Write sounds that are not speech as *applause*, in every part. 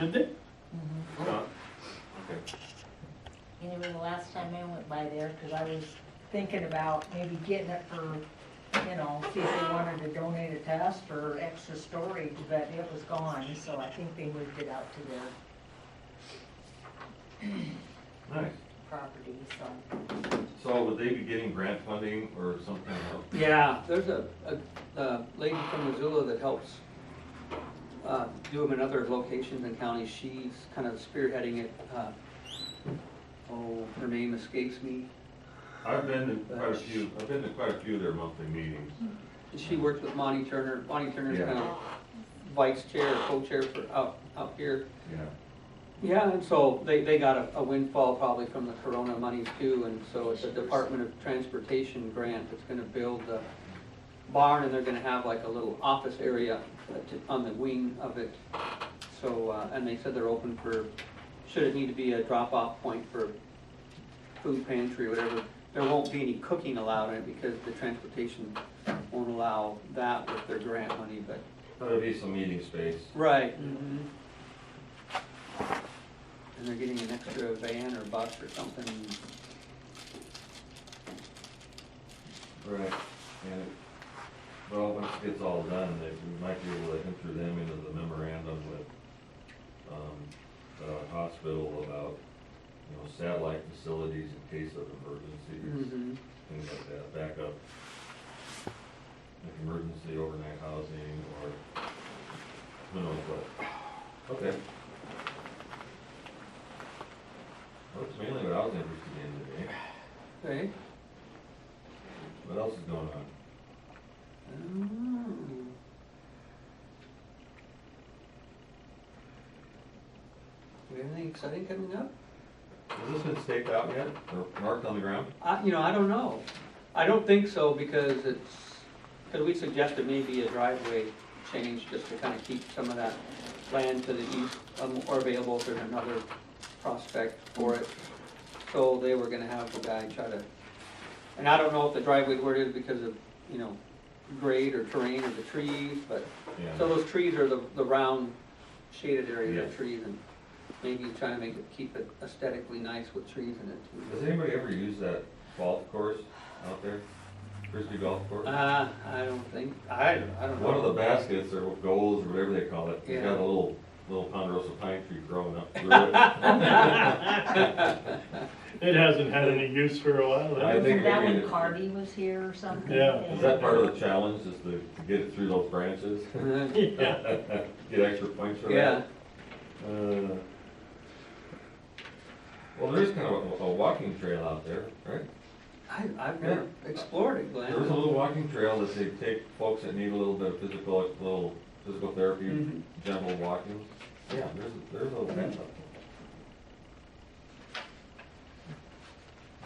Did they? No. Okay. Anyway, the last time I went by there, because I was thinking about maybe getting it for, you know, see if they wanted to donate it to us for extra storage, but it was gone, so I think they moved it out to their Nice. property, so. So would they be getting grant funding or something else? Yeah, there's a, a, a lady from Missoula that helps, uh, do them in other locations and counties. She's kind of spearheading it, uh, oh, her name escapes me. I've been to quite a few, I've been to quite a few of their monthly meetings. And She works with Monty Turner. Monty Turner's Yeah. kind of vice chair, or co-chair for out, out here. Yeah. Yeah, and so they, they got a- a windfall probably from the Corona monies too, and so it's a Department of Transportation grant that's gonna build a barn, and they're gonna have like a little office area to- on the wing of it. So, uh, and they said they're open for, should it need to be a drop-off point for food pantry or whatever, there won't be any cooking allowed in it because the transportation won't allow that with their grant money, but. There'll be some meeting space. Right. And they're getting an extra van or bus or something. Right. And, well, once it gets all done, they, we might be able to enter them into the memorandum with, um, the hospital about, you know, satellite facilities in case of Mm-hmm. emergencies. things like that, backup, like emergency overnight housing or who knows what. Okay. That's mainly what I was interested in today. Okay. What else is going on? Mm. We have anything exciting coming up? Has this been staked out yet or marked on the ground? I, you know, I don't know. I don't think so because it's, because we suggested maybe a driveway change just to kind of keep some of that land to the east um, or available for another prospect for it. So they were gonna have the guy try to, and I don't know if the driveway where it is because of, you know, grade or terrain or the trees, but, so Yeah. those trees are the, the round shaded area of Yeah. the trees and maybe try to make it, keep it aesthetically nice with trees in it. Does anybody ever use that golf course out there? Frisbee golf course? Uh, I don't think, I, I don't know. One of the baskets or goals or whatever they call it, it's Yeah. got a little, little ponderosa pine tree growing up through it. *laughs* It hasn't had any use for a while. I has it? think Wasn't that maybe when it- Carvey was here or something? Yeah. Is that part of the challenge, is to to get it through those branches? Uh, *laughs* Yeah, Get extra points for Yeah, that? Uh, Well, there is kind of a, a walking trail out there, right? I, I've never explored it, Glenn. There's a little walking trail that they take folks that need a little bit of physical, a little physical therapy, Mhm. gentle walking. Yeah, there's, a- there's a little path up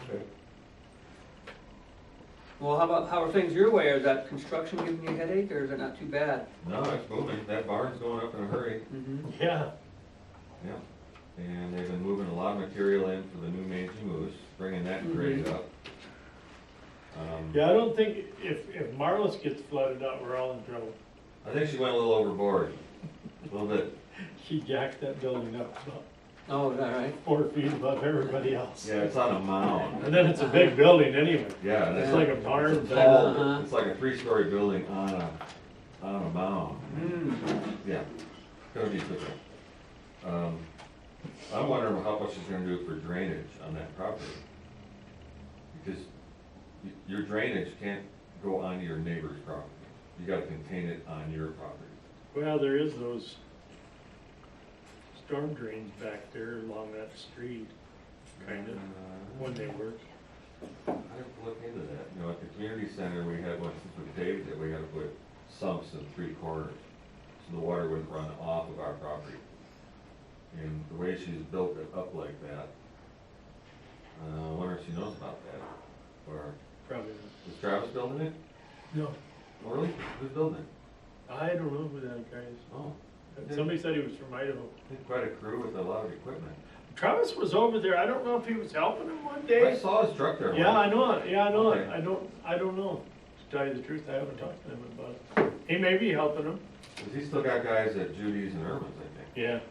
there. Okay. Well, how about, how are things your way? Is that construction giving you a headache or is it not too bad? No, it's moving, that barn's going up in a hurry, Mm-hmm. yeah. yeah. And they've been moving a lot of material in for the new Mangy Moose, bringing that grade up. Um, Yeah, I don't think, if, if Marlis gets flooded out, we're all in trouble. I think she went a little overboard, a little bit, She jacked that building up about Oh, is that right? four feet above everybody else. yeah, it's on a mound. And then it's a big building anyway. Yeah, and It's it's like like, a barn. it's a type. tall, Uh-huh. it's like a three-story building on a, on a mound, Mm. yeah. Gonna be different. Um, I'm wondering how much she's gonna do for drainage on that property. Because y- your drainage can't go onto your neighbor's property, you gotta contain it on your property. Well, there is those storm drains back there along that street, kind of, when they work. I have to look into that. You know, at the community center, we had one since we paved it, we had to put sumps in three corners. So the water wouldn't run off of our property. And the way she's built it up like that, uh, I wonder if she knows about that. Or Probably is Travis building it? not. Oh, really? Who's building it? No, I don't know who that guy Oh, is. Somebody said he was from Idaho. they had quite a crew with a lot of equipment. Travis was over there. I don't know if he was helping him one I day. saw his truck there. Yeah, I once. know it, yeah, I know it, Okay. I don't, I don't know, to tell you the truth, I haven't talked to him about it. He may be helping him. Cause he's still got guys at Judy's and Irvin's, I think. Yeah.